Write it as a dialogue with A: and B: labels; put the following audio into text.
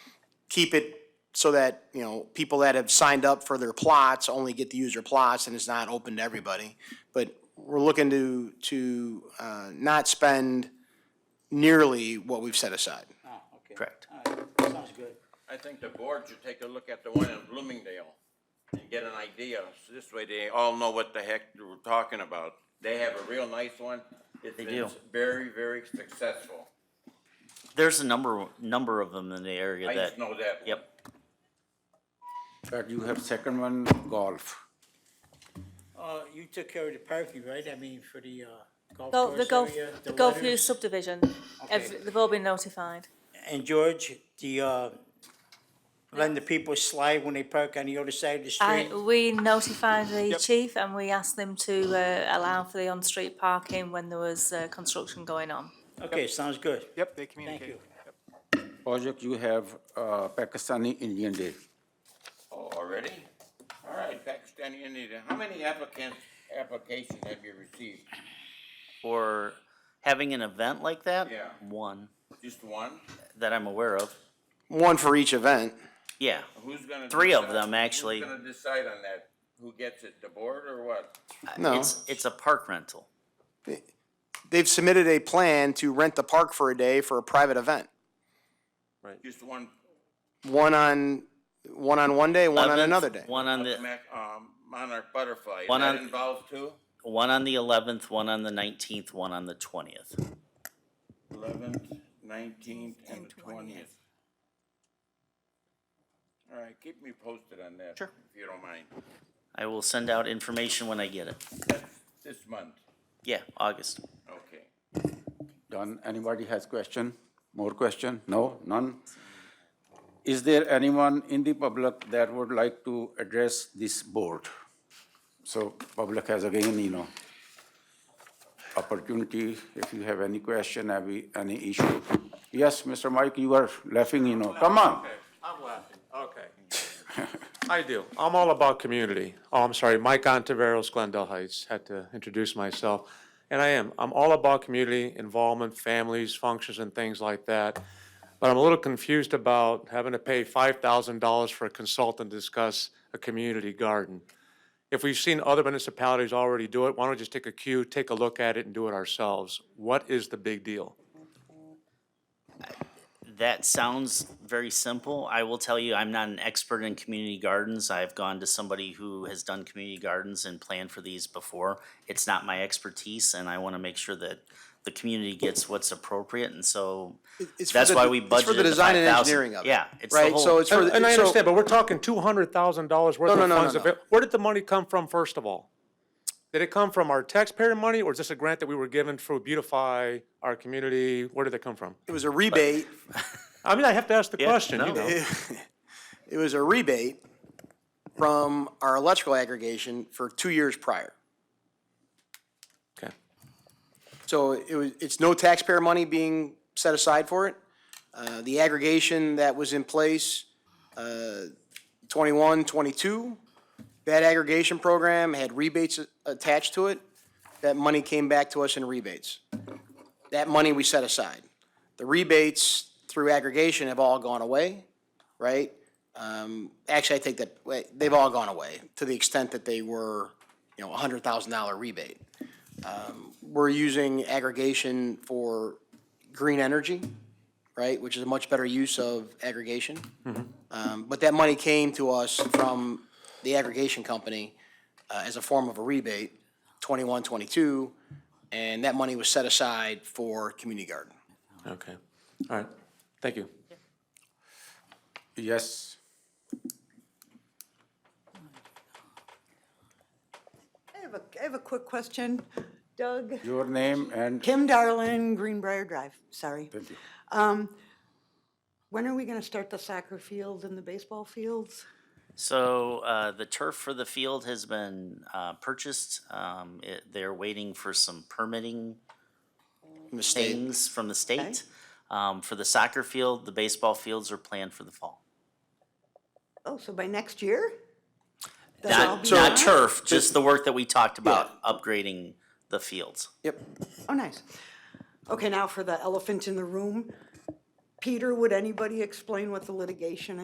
A: keep it so that, you know, people that have signed up for their plots only get to use their plots and it's not open to everybody. But we're looking to, to uh, not spend nearly what we've set aside.
B: Ah, okay.
C: Correct.
B: All right, sounds good.
D: I think the board should take a look at the one in Bloomingdale and get an idea. So This way they all know what the heck we're talking about. They have a real nice one. It's
C: They
D: been
C: do.
D: very, very successful.
C: There's a number, number of them in the area
D: I
C: that,
D: just know that. one.
C: yep.
E: But you have second one, golf.
B: Uh, you took care of the parking, right? I mean, for the, uh, golf
F: Gulf, the
B: course
F: Gulf,
B: area?
F: the Gulf View
B: letters?
F: subdivision, Every- they've all been notified.
B: And George, the, uh, letting the people slide when they park on the other side of the
F: I,
B: street?
F: we notified the chief and we asked them to, uh, allow for the on-street parking when there was, uh, construction going on.
B: Okay, sounds good.
G: Yep, they
B: Thank
G: communicate.
B: you.
E: Project, you have uh, Pakistani Indian Day.
D: Oh, already? All right, Pakistani Indian. How many applicants, applications have you received?
C: Or having an event like that?
D: Yeah.
C: One
D: Just one?
C: that I'm aware of.
A: One for each event.
C: Yeah.
D: Who's gonna?
C: Three of
D: decide-
C: them, actually.
D: Who's gonna decide on that? Who gets it, the board or what?
A: No,
C: It's, it's a park rental.
A: they've submitted a plan to rent the park for a day for a private event.
D: Just one,
A: One on, one on one day, one on
C: 11th,
A: another day.
C: One on the,
D: Mac- um, monarch butterfly.
C: One
D: That
C: on-
D: involves two?
C: one on the eleventh, one on the nineteenth, one on the twentieth.
D: eleventh, nineteenth, and the twentieth. All right, keep me posted on that.
C: Sure.
D: If you don't mind.
C: I will send out information when I get it.
D: That's this month,
C: Yeah, August.
D: okay.
E: Done. Anybody has question? More question? No, none? Is there anyone in the public that would like to address this board? So public has again, you know, opportunity, if you have any question, have you- any issue. Yes, Mr. Mike, you are laughing, you know. Come on.
G: I'm laughing, okay. I do. I'm all about community. Oh, I'm sorry, Mike Ontiveros, Glendale Heights, had to introduce myself. And I am, I'm all about community involvement, families, functions, and things like that. But I'm a little confused about having to pay five thousand dollars for a consultant to discuss a community garden. If we've seen other municipalities already do it, why don't we just take a cue, take a look at it, and do it ourselves? What is the big deal?
C: That sounds very simple. I will tell you, I'm not an expert in community gardens. I've gone to somebody who has done community gardens and planned for these before. It's not my expertise, and I want to make sure that the community gets what's appropriate, and so
A: It's for
C: that's
A: the-
C: why we
A: it's for the
C: budgeted the
A: design and
C: 5,000.
A: engineering of it.
C: Yeah, it's the
A: Right, so
C: whole-
A: it's for. the-
G: And I
A: so-
G: understand, but we're talking two hundred thousand dollars worth
A: No,
G: of
A: no, no, no,
G: funds.
A: no.
G: avail- Where did the money come from, first of all? Did it come from our taxpayer money, or is this a grant that we were given to beautify our community? Where did it come from?
A: It was a rebate,
G: I mean, I have to ask the question,
C: no.
G: you know.
A: it was a rebate from our electrical aggregation for two years prior.
G: Okay.
A: So it was, it's no taxpayer money being set aside for it. Uh, The aggregation that was in place, uh, 21, 22, that aggregation program had rebates a- attached to it. That money came back to us in rebates. That money we set aside. The rebates through aggregation have all gone away, right? Um, Actually, I take that, wait, they've all gone away to the extent that they were, you know, a $100,000 rebate we're using aggregation for green energy, right, which is a much better use of aggregation. Um, But that money came to us from the aggregation company uh, as a form of a rebate, 21, 22, and that money was set aside for community garden.
G: Okay. All right. Thank you.
E: Yes.
H: I have a, I have a quick question. Doug,
E: Your name and
H: Kim Darlin, Greenbrier Drive, sorry. Thank you. When are we gonna start the soccer field and the baseball fields?
C: So uh, the turf for the field has been uh, purchased. Um, it, they're waiting for some permitting
A: Mistake.
C: things from the state. Um, for the soccer field, the baseball fields are planned for the fall.
H: Oh, so by next year? That'll all
C: Not,
H: be
C: not
H: done?
C: turf, just the work that we talked about, upgrading the fields.
A: Yep.
H: Oh, nice. Okay, now for the elephant in the room. Peter, would anybody explain what the litigation